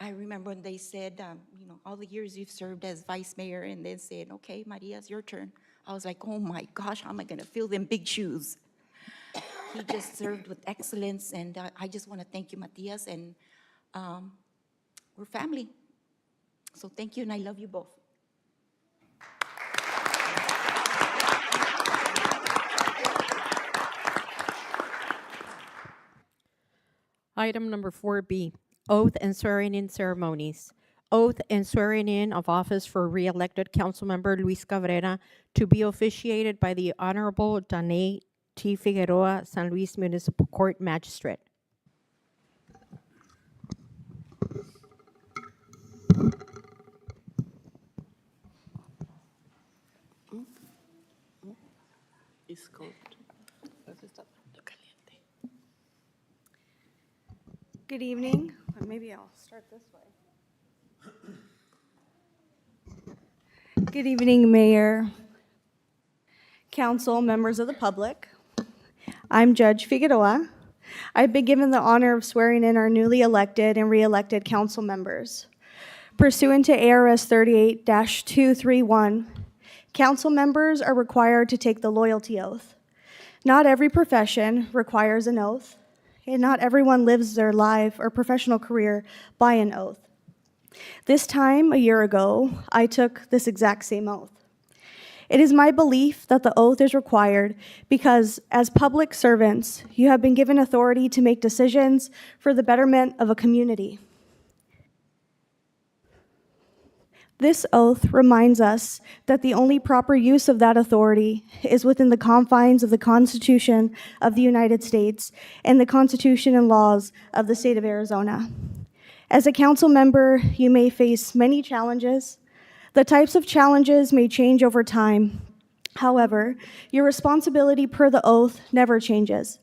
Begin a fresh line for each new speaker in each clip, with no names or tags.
I remember when they said, um, you know, all the years you've served as vice mayor, and then said, okay, Maria, it's your turn. I was like, oh my gosh, how am I gonna fill them big shoes? He just served with excellence, and uh, I just want to thank you, Matias, and um, we're family. So thank you, and I love you both.
Item number 4B, oath and swearing-in ceremonies. Oath and swearing-in of office for re-elected Councilmember Luis Cabrera to be officiated by the Honorable Danae T. Figueroa, San Luis Municipal Court Magistrate.
It's cold. Eso está caliente.
Good evening. Or Maybe I'll start this way. Good evening, Mayor, Council, members of the public. I'm Judge Figueroa. I've been given the honor of swearing in our newly elected and re-elected council members. Pursuant to ARS 38-231, council members are required to take the loyalty oath. Not every profession requires an oath, and not everyone lives their life or professional career by an oath. This time, a year ago, I took this exact same oath. It is my belief that the oath is required because, as public servants, you have been given authority to make decisions for the betterment of a community. This oath reminds us that the only proper use of that authority is within the confines of the Constitution of the United States and the Constitution and laws of the state of Arizona. As a council member, you may face many challenges. The types of challenges may change over time. However, your responsibility per the oath never changes.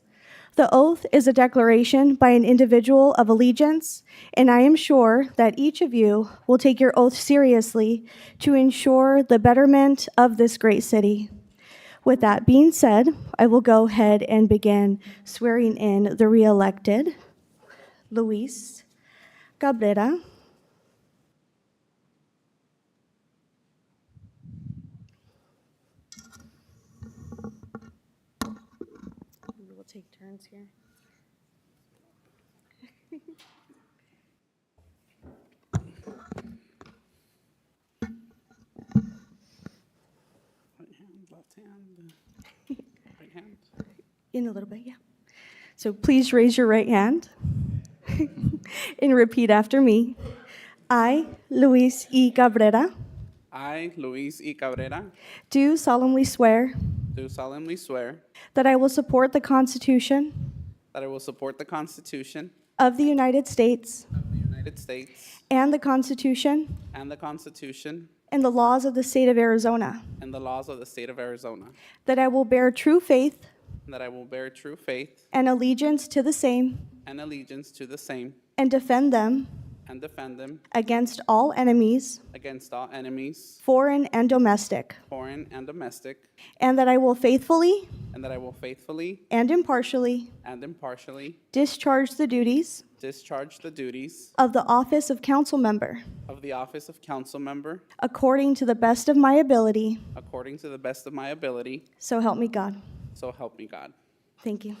The oath is a declaration by an individual of allegiance, and I am sure that each of you will take your oath seriously to ensure the betterment of this great city. With that being said, I will go ahead and begin swearing in the re-elected Luis Cabrera. We will take turns here.
Right hand, left hand, right hand.
In a little bit, yeah. So please raise your right hand and repeat after me. I, Luis E. Cabrera,
I, Luis E. Cabrera,
do solemnly swear
do solemnly swear
that I will support the Constitution
that I will support the Constitution
of the United States
of the United States
and the Constitution
and the Constitution
and the laws of the state of Arizona,
and the laws of the state of Arizona,
that I will bear true faith
and that I will bear true faith
and allegiance to the same
and allegiance to the same
and defend them
and defend them
against all enemies,
against all enemies,
foreign and domestic,
foreign and domestic,
and that I will faithfully
and that I will faithfully
and impartially
and impartially
discharge the duties
discharge the duties
of the office of council member
of the office of council member
according to the best of my ability.
according to the best of my ability,
So help me God.
so help me God.
Thank you.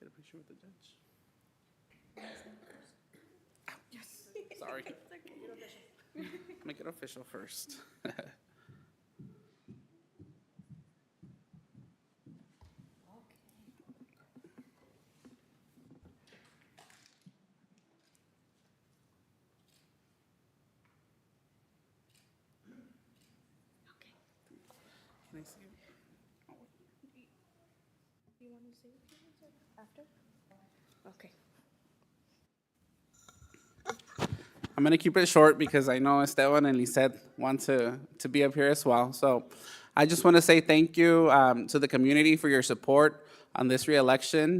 Get a picture with the judge. Ow, Yes, sorry. Make it official first. Can I see it? I'm gonna keep it short because I know Esteban and Lisette want to, to be up here as well. So I just want to say thank you um, to the community for your support on this reelection.